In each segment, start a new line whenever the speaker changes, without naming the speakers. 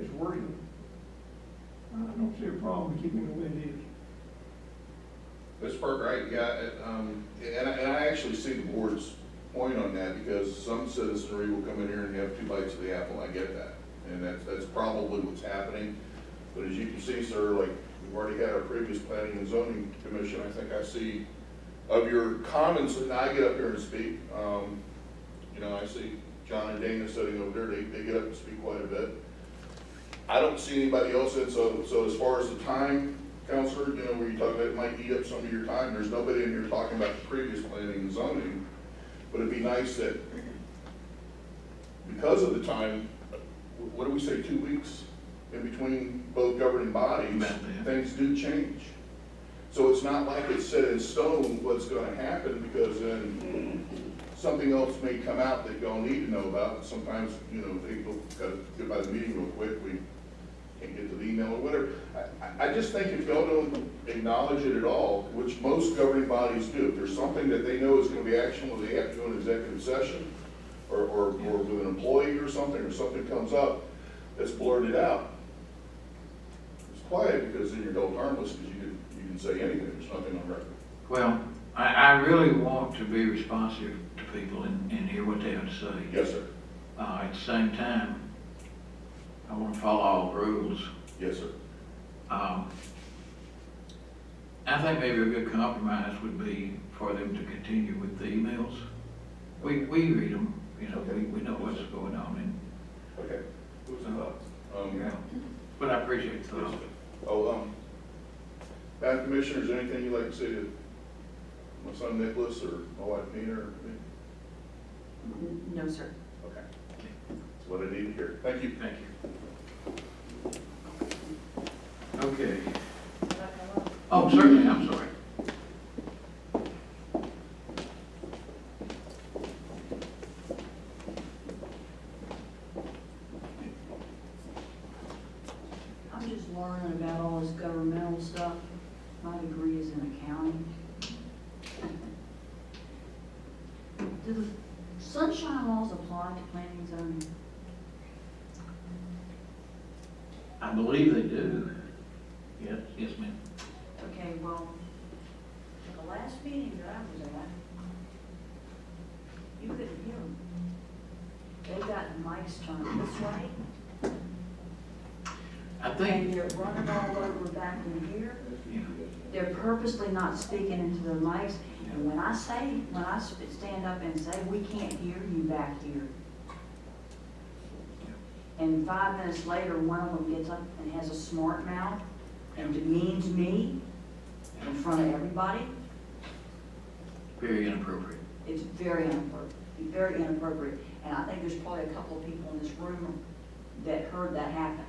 it's working. I don't see a problem keeping it the way it is.
That's part, right, yeah, it, um, and I, and I actually see the board's point on that, because some citizenry will come in here and have two bites of the apple, I get that. And that's, that's probably what's happening, but as you can see, sir, like, we've already had our previous planning and zoning commission, I think I see of your comments, and I get up here and speak, um, you know, I see John and Dana sitting over there, they, they get up and speak quite a bit. I don't see anybody else in, so, so as far as the time, Counselor, you know, where you talk about it might eat up some of your time, there's nobody in here talking about the previous planning and zoning. But it'd be nice that, because of the time, what do we say, two weeks in between both governing bodies,
About that.
things do change. So it's not like it's set in stone what's gonna happen, because then something else may come out that y'all need to know about. Sometimes, you know, people gotta get by the meeting real quick, we can't get to the email or whatever. I- I, I just think if y'all don't acknowledge it at all, which most governing bodies do, if there's something that they know is gonna be actionable, they have to do an executive session, or, or, or with an employee or something, or something comes up, that's blurted out. It's quiet, because then you're held harmless, because you can, you can say anything, there's nothing on record.
Well, I, I really want to be responsive to people and, and hear what they have to say.
Yes, sir.
Uh, at the same time, I want to follow all the rules.
Yes, sir.
Um, I think maybe a good compromise would be for them to continue with the emails. We, we read them, you know, we, we know what's going on
Okay. Who's
in
up?
and,
Um,
yeah. But I appreciate the thought.
Oh, um, Madam Commissioner, is there anything you'd like to say to my son Nicholas or my wife Nina or me?
No, sir.
Okay. That's what I need to hear. Thank you.
Thank you. Okay. Oh, certainly, I'm sorry.
I'm just learning about all this governmental stuff. My degree is in accounting. Do the sunshine laws apply to planning zoning?
I believe they do. Yes. Yes, ma'am.
Okay, well, at the last meeting that I was at, you couldn't hear them. They got mics turned this way,
I
and
think,
they're running all over back in here.
you know,
They're purposely not speaking into their mics, and when I say, when I sp- stand up and say, we can't hear you back here. And five minutes later, one of them gets up and has a smart mouth and demeans me in front of everybody,
very inappropriate.
it's very inappropriate, very inappropriate. And I think there's probably a couple of people in this room that heard that happen.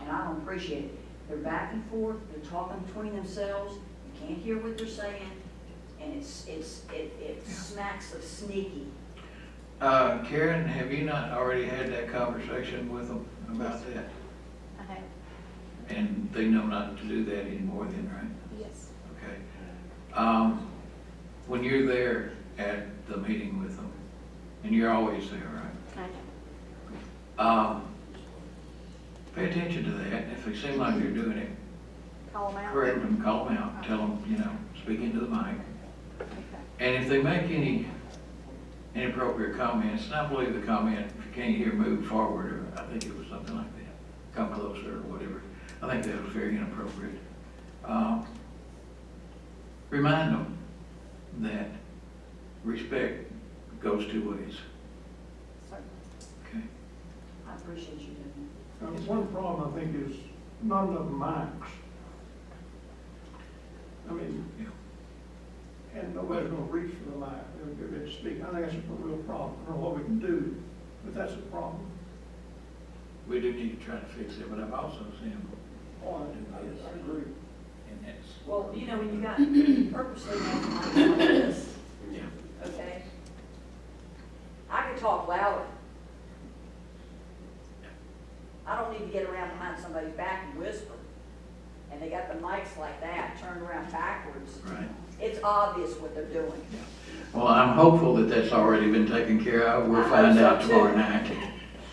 and I don't appreciate it. They're back and forth, they're talking between themselves, you can't hear what they're saying, and it's, it's, it, it smacks of sneaky.
Uh, Karen, have you not already had that conversation with them about that?
Okay,
And they know not to do that anymore then, right?
yes.
Okay. Um, when you're there at the meeting with them, and you're always there, right?
Kind
Um, pay attention to that, if they seem like they're doing it,
of. Call them out.
correct them, call them out, tell them, you know, speak into the mic. And if they make any inappropriate comments, and I believe the comment, if you can't hear, move forward, or I think it was something like that, come closer, or whatever, I think that was very inappropriate. Um, Remind them that respect goes two ways,
Sorry.
okay?
I appreciate you doing that.
Now, one problem I think is not enough mics. I mean,
Yeah.
and nobody's gonna reach for the mic, they're gonna speak, I think that's a real problem, I don't know what we can do, but that's a problem.
We do need to try to fix it, but I've also seen them
Oh, I- I, I agree.
And that's.
Well, you know, when you got purposely making mics like this,
Yeah.
okay? I could talk louder. I don't need to get around behind somebody's back and whisper, and they got the mics like that, turned around backwards.
Right.
It's obvious what they're doing.
Well, I'm hopeful that that's already been taken care of. We'll find out tomorrow night.